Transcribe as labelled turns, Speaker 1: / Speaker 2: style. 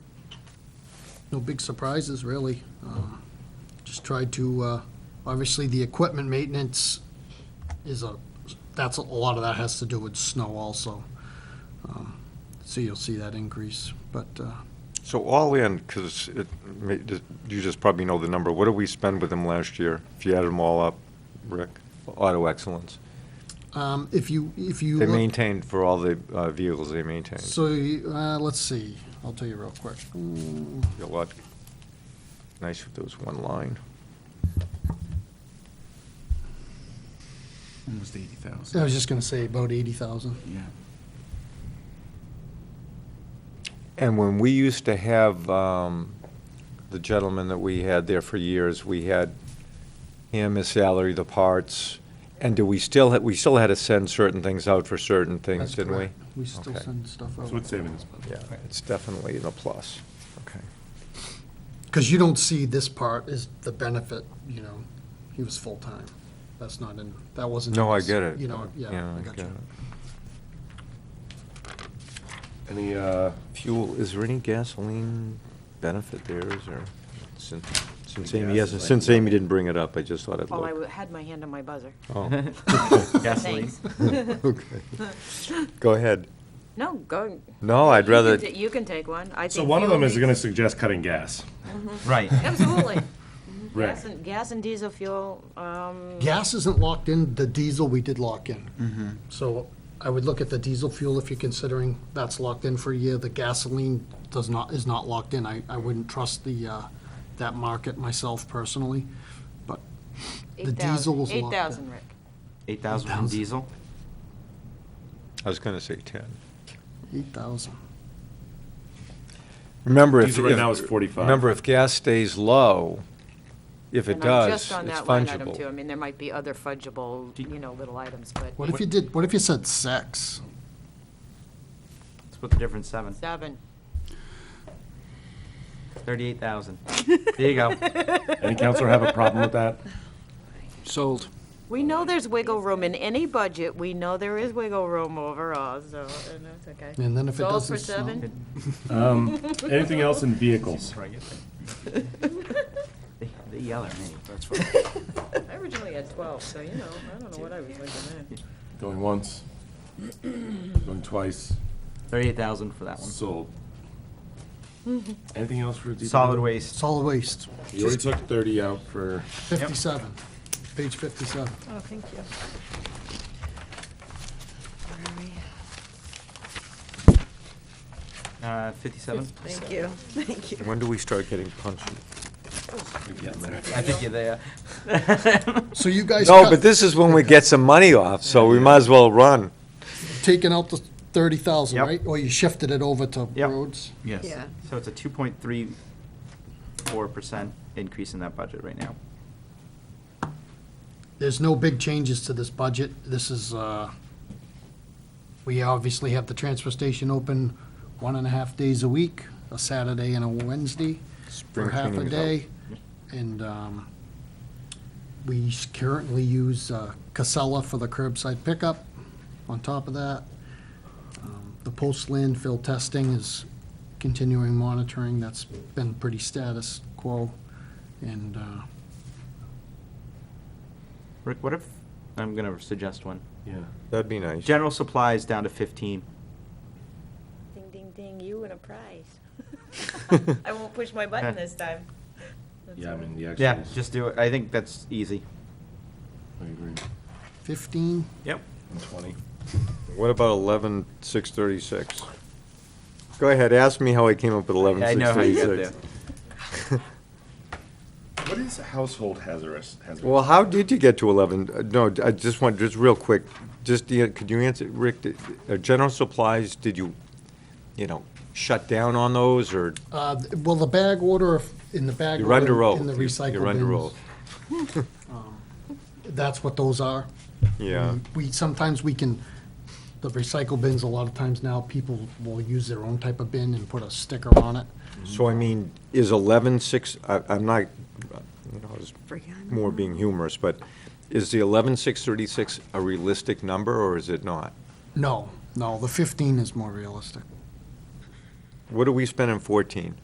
Speaker 1: no big surprises, really. Um, Just tried to, uh, obviously, the equipment maintenance is a, that's, a lot of that has to do with snow also. Um, So you'll see that increase, but, uh,
Speaker 2: So all in, because it, may- you just probably know the number, what did we spend with them last year? If you added them all up, Rick, Auto Excellence.
Speaker 1: um, if you, if you.
Speaker 2: They
Speaker 1: look-
Speaker 2: maintained for all the uh, vehicles they maintained.
Speaker 1: So, you- uh, let's see, I'll tell you real quick. Mm,
Speaker 2: A lot. Nice if there was one line.
Speaker 3: Almost eighty
Speaker 1: I
Speaker 3: thousand.
Speaker 1: was just gonna say about eighty thousand.
Speaker 3: Yeah.
Speaker 2: And when we used to have um, the gentleman that we had there for years, we had him, his salary, the parts, and do we still, ha- we still had to send certain things out for certain things, didn't we?
Speaker 1: We still
Speaker 2: Okay.
Speaker 1: send stuff out.
Speaker 4: So it's saving us.
Speaker 2: Yeah, it's definitely in the plus. Okay.
Speaker 1: Because you don't see this part is the benefit, you know, he was full-time. That's not in, that wasn't. in
Speaker 2: No, I
Speaker 1: this,
Speaker 2: get it.
Speaker 1: You know, yeah, I got
Speaker 2: get
Speaker 1: you.
Speaker 2: it. Any uh, fuel, is there any gasoline benefit there, is there? Since since Amy hasn't, since Amy didn't bring it up, I just thought I'd
Speaker 5: Well, I w-
Speaker 2: look.
Speaker 5: had my hand on my buzzer.
Speaker 2: Oh,
Speaker 5: Gasoline.
Speaker 2: okay. Go ahead.
Speaker 5: No, go.
Speaker 2: No, I'd
Speaker 5: you
Speaker 2: rather,
Speaker 5: can ta- You can take one. I
Speaker 4: So
Speaker 5: think
Speaker 4: one of
Speaker 5: fuel
Speaker 4: them is
Speaker 5: makes-
Speaker 4: gonna suggest cutting gas.
Speaker 5: Mm-hmm.
Speaker 3: Right.
Speaker 5: Absolutely.
Speaker 4: Right.
Speaker 5: Gas and- Gas and diesel fuel, um,
Speaker 1: Gas isn't locked in, the diesel we did lock in. So I would look at the diesel fuel if you're considering that's locked in for a year. The gasoline does not, is not locked in. I, I wouldn't trust the, uh, that market myself personally, but the
Speaker 5: eight thousand.
Speaker 1: diesel was locked in.
Speaker 5: Eight thousand, Rick.
Speaker 3: Eight thousand from
Speaker 1: 8,000.
Speaker 3: diesel?
Speaker 2: I was going to say 10.
Speaker 1: Eight thousand.
Speaker 2: Remember if.
Speaker 4: Diesel right
Speaker 2: if-
Speaker 4: now is 45.
Speaker 2: Remember, if gas stays low, if it
Speaker 5: And I'm
Speaker 2: does, it's
Speaker 5: just on that line item too. I
Speaker 2: fungible.
Speaker 5: mean, there might be other fudgeable, you know, little items,
Speaker 1: What
Speaker 5: but
Speaker 1: if you did, what if you said six?
Speaker 3: Split the difference, seven.
Speaker 5: seven.
Speaker 3: Thirty-eight thousand. There you go.
Speaker 4: Any counselor have a problem with that?
Speaker 3: Sold.
Speaker 5: We know there's wiggle room in any budget. We know there is wiggle room overall, so, and that's okay.
Speaker 1: And then if it
Speaker 5: Sold
Speaker 1: doesn't
Speaker 5: for
Speaker 1: snow-
Speaker 5: seven?
Speaker 4: Anything else in vehicles?
Speaker 3: They they yell at me. That's
Speaker 5: I originally had twelve, so you know, I don't know what I was looking at.
Speaker 4: Going once, going twice,
Speaker 3: Thirty-eight thousand for that one.
Speaker 4: sold.
Speaker 5: Mm-hmm.
Speaker 4: Anything else for?
Speaker 3: Solid waste.
Speaker 1: Solid waste,
Speaker 4: You already took 30 out for,
Speaker 1: fifty-seven, page fifty-seven.
Speaker 5: Oh, thank you.
Speaker 3: Uh, fifty-seven?
Speaker 5: Thank you, thank you.
Speaker 2: When do we start getting punchy?
Speaker 3: I think you're there.
Speaker 1: So you guys
Speaker 2: No,
Speaker 1: cut,
Speaker 2: but this is when we get some money off, so we might as well run.
Speaker 1: taking out the thirty thousand,
Speaker 3: Yep.
Speaker 1: right? Or you shifted it over to
Speaker 3: Yep.
Speaker 1: roads?
Speaker 3: Yes.
Speaker 5: Yeah.
Speaker 3: So it's a two point three four percent increase in that budget right now.
Speaker 1: There's no big changes to this budget. This is, uh, we obviously have the transfer station open one and a half days a week, a Saturday and a Wednesday for
Speaker 2: Spring
Speaker 1: half a
Speaker 2: cleaning is out.
Speaker 1: day. And um, we s- currently use uh, Casella for the curbside pickup on top of that. Um, The post landfill testing is continuing monitoring. That's been pretty status quo. And uh,
Speaker 3: Rick, what if, I'm gonna suggest one.
Speaker 4: yeah.
Speaker 2: That'd be nice.
Speaker 3: General supplies down to fifteen.
Speaker 5: Ding, ding, ding, you win a prize. I won't push my button this time. That's
Speaker 4: Yeah, I
Speaker 5: all right.
Speaker 4: mean, the actuals.
Speaker 3: Yeah, just do it. I think that's easy.
Speaker 4: I agree.
Speaker 1: 15,
Speaker 3: Yep.
Speaker 4: And 20.
Speaker 2: What about eleven six thirty-six? Go ahead, ask me how I came up with eleven
Speaker 3: I
Speaker 2: six
Speaker 3: know how you got
Speaker 2: thirty-six.
Speaker 3: there.
Speaker 4: What is household hazardous? hazardous?
Speaker 2: Well, how did you get to eleven? Uh, No, I just want, just real quick, just, the- could you answer, Rick, did- uh, general supplies, did you, you know, shut down on those, or
Speaker 1: Uh, Well, the bag order, if- in the bag
Speaker 2: you're under
Speaker 1: order,
Speaker 2: oath?
Speaker 1: in the
Speaker 2: You're-
Speaker 1: recycle
Speaker 2: You're under
Speaker 1: bins,
Speaker 2: oath,
Speaker 1: that's what those are.
Speaker 2: yeah.
Speaker 1: We, we- sometimes we can, the recycle bins, a lot of times now, people will use their own type of bin and put a sticker on it.
Speaker 2: So I mean, is eleven six, I, I'm not, you know, I was more being humorous, but is the eleven six thirty-six a realistic number, or is it not?
Speaker 1: No, no, the 15 is more realistic.
Speaker 2: What do we spend in fourteen?